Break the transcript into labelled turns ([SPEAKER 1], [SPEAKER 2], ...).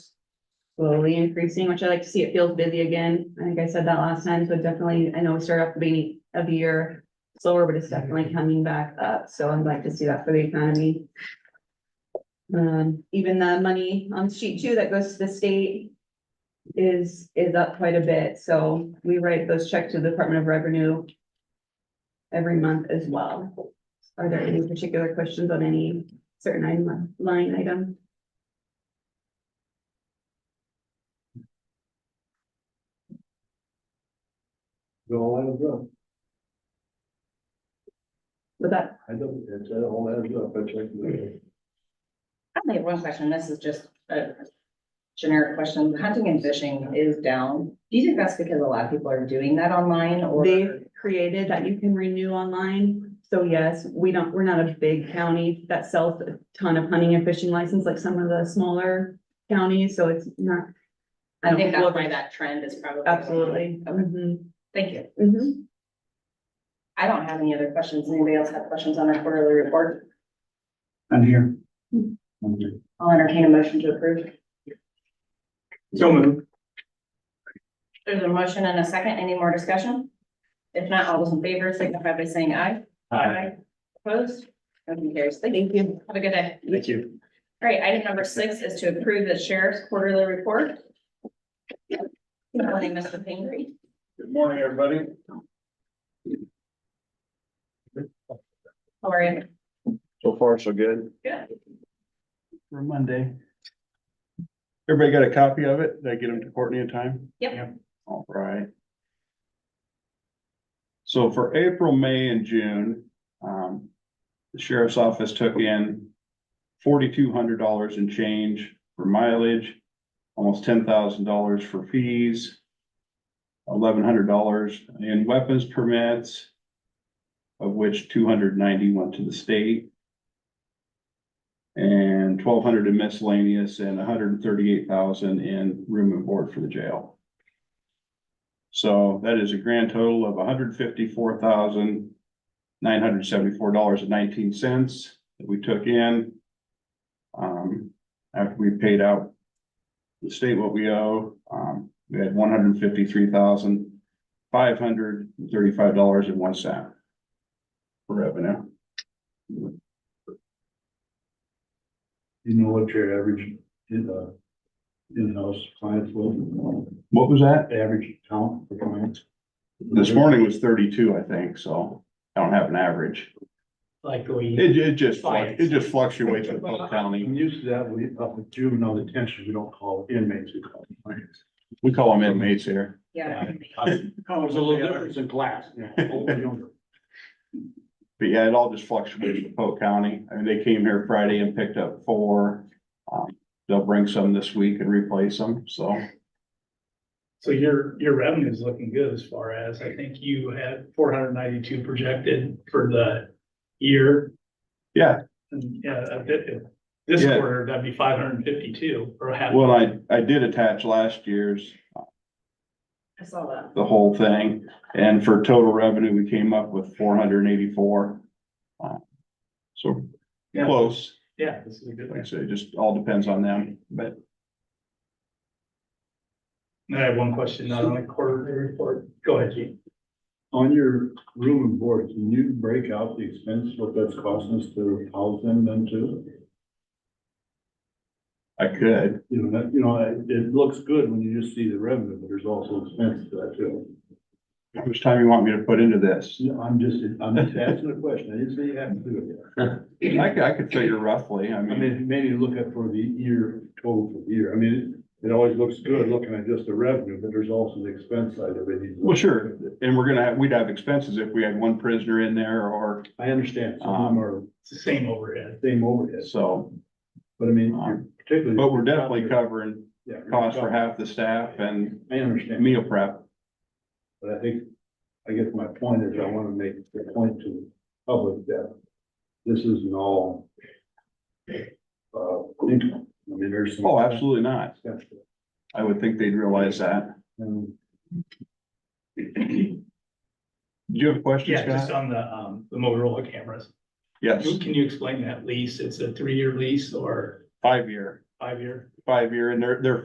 [SPEAKER 1] slowly increasing, which I like to see. It feels busy again. I think I said that last time, so definitely, I know we started off the beginning of the year slower, but it's definitely coming back up, so I'd like to see that for the economy. Um, even the money on sheet two that goes to the state is, is up quite a bit, so we write those checks to the Department of Revenue every month as well. Are there any particular questions on any certain item- line item?
[SPEAKER 2] Go all adds up.
[SPEAKER 1] With that,
[SPEAKER 2] I don't, it's uh, all adds up. I checked. the-
[SPEAKER 3] I only have one question. This is just a generic question. Hunting and fishing is down. Do you think that's because a lot of people are doing that online or?
[SPEAKER 1] they've created that you can renew online, so yes, we don't, we're not a big county that sells a ton of hunting and fishing license like some of the smaller counties, so it's not.
[SPEAKER 3] I think
[SPEAKER 1] don't-
[SPEAKER 3] that's why that trend is probably.
[SPEAKER 1] Absolutely.
[SPEAKER 3] Okay.
[SPEAKER 1] Mhm.
[SPEAKER 3] Thank you.
[SPEAKER 1] Mhm.
[SPEAKER 3] I don't have any other questions. Anybody else have questions on our quarterly report?
[SPEAKER 4] I'm here. Hmm.
[SPEAKER 3] I'll entertain a motion to approve.
[SPEAKER 4] So moved.
[SPEAKER 3] There's a motion and a second. Any more discussion? If not, all those in favor signify by saying aye. Opposed? Motion carries. Thank you.
[SPEAKER 1] Thank you.
[SPEAKER 3] Have a good day.
[SPEAKER 4] Thank you.
[SPEAKER 3] All right, item number six is to approve the sheriff's quarterly report. Good morning, Mr. Pingree.
[SPEAKER 4] Good morning, everybody.
[SPEAKER 3] How are you?
[SPEAKER 2] So far, so good.
[SPEAKER 3] Good.
[SPEAKER 4] For Monday. Everybody got a copy of it? Did I get them to Courtney in time?
[SPEAKER 3] Yep.
[SPEAKER 4] All right. So for April, May and June, um, the sheriff's office took in forty-two hundred dollars in change for mileage, almost ten thousand dollars for fees, eleven hundred dollars in weapons permits, of which two hundred ninety went to the state. And twelve hundred in miscellaneous and hundred and thirty-eight thousand in room and board for the jail. So that is a grand total of hundred fifty-four thousand nine hundred seventy-four dollars and nineteen cents that we took in. Um, after we paid out the state what we owe, um, we had one hundred fifty-three thousand five hundred thirty-five dollars and one cent. For revenue.
[SPEAKER 2] You know what your average in the in-house clients will,
[SPEAKER 4] What was that?
[SPEAKER 2] average count for clients?
[SPEAKER 4] This morning was thirty-two, I think, so I don't have an average.
[SPEAKER 5] like we,
[SPEAKER 4] It, it just, fluc- it just fluctuates with Polk
[SPEAKER 2] I'm
[SPEAKER 4] County.
[SPEAKER 2] used to that with, uh, with juvenile detention, we don't call inmates, we call clients.
[SPEAKER 4] We call them inmates here.
[SPEAKER 3] Yeah.
[SPEAKER 2] There's a little difference in class. Well,
[SPEAKER 4] But yeah, it all just fluctuates with Polk County. I mean, they came here Friday and picked up four. Um, They'll bring some this week and replace them, so.
[SPEAKER 5] so your, your revenue is looking good as far as, I think you had four hundred ninety-two projected for the year.
[SPEAKER 4] Yeah.
[SPEAKER 5] And, yeah, a bit, if this
[SPEAKER 4] Yeah.
[SPEAKER 5] quarter, that'd be five hundred and fifty-two or half.
[SPEAKER 4] Well, I, I did attach last year's,
[SPEAKER 3] I saw that.
[SPEAKER 4] the whole thing. And for total revenue, we came up with four hundred and eighty-four. Um, So
[SPEAKER 5] Yeah.
[SPEAKER 4] close.
[SPEAKER 5] Yeah, this is a good
[SPEAKER 4] Like I
[SPEAKER 5] one.
[SPEAKER 4] said, it just all depends on them, but
[SPEAKER 5] And I have one question, not on the quarterly report. Go ahead, Gene.
[SPEAKER 2] On your room and board, can you break out the expense, what that's costing us to house them then too?
[SPEAKER 4] I could.
[SPEAKER 2] You know, that, you know, it, it looks good when you just see the revenue, but there's also expense to that too.
[SPEAKER 4] How much time you want me to put into this?
[SPEAKER 2] No, I'm just, I'm just asking a question, I didn't say you have to do it.
[SPEAKER 4] I could, I could figure roughly, I
[SPEAKER 2] I
[SPEAKER 4] mean,
[SPEAKER 2] mean, maybe look at for the year, total for the year, I mean, it always looks good looking at just the revenue, but there's also the expense side of it.
[SPEAKER 4] well, sure, and we're gonna have, we'd have expenses if we had one prisoner in there or
[SPEAKER 2] I understand, some
[SPEAKER 4] Um,
[SPEAKER 2] of them are
[SPEAKER 5] It's the same overhead.
[SPEAKER 2] same overhead,
[SPEAKER 4] so.
[SPEAKER 2] but I mean, you're
[SPEAKER 4] um,
[SPEAKER 2] particularly.
[SPEAKER 4] But we're definitely covering
[SPEAKER 2] Yeah, you're
[SPEAKER 4] costs for
[SPEAKER 2] covered.
[SPEAKER 4] half the staff and
[SPEAKER 2] I understand.
[SPEAKER 4] meal prep.
[SPEAKER 2] But I think, I guess my point is I want to make the point to the public that this isn't all uh, income. I mean, there's some.
[SPEAKER 4] Oh, absolutely not.
[SPEAKER 2] expense.
[SPEAKER 4] I would think they'd realize that.
[SPEAKER 2] And
[SPEAKER 4] Do you have a question,
[SPEAKER 5] Yeah, just
[SPEAKER 4] Scott?
[SPEAKER 5] on the, um, the Motorola cameras.
[SPEAKER 4] Yes,
[SPEAKER 5] Can you explain that lease? It's a three-year lease or
[SPEAKER 4] five year,
[SPEAKER 5] five-year?
[SPEAKER 4] five year, and they're, they're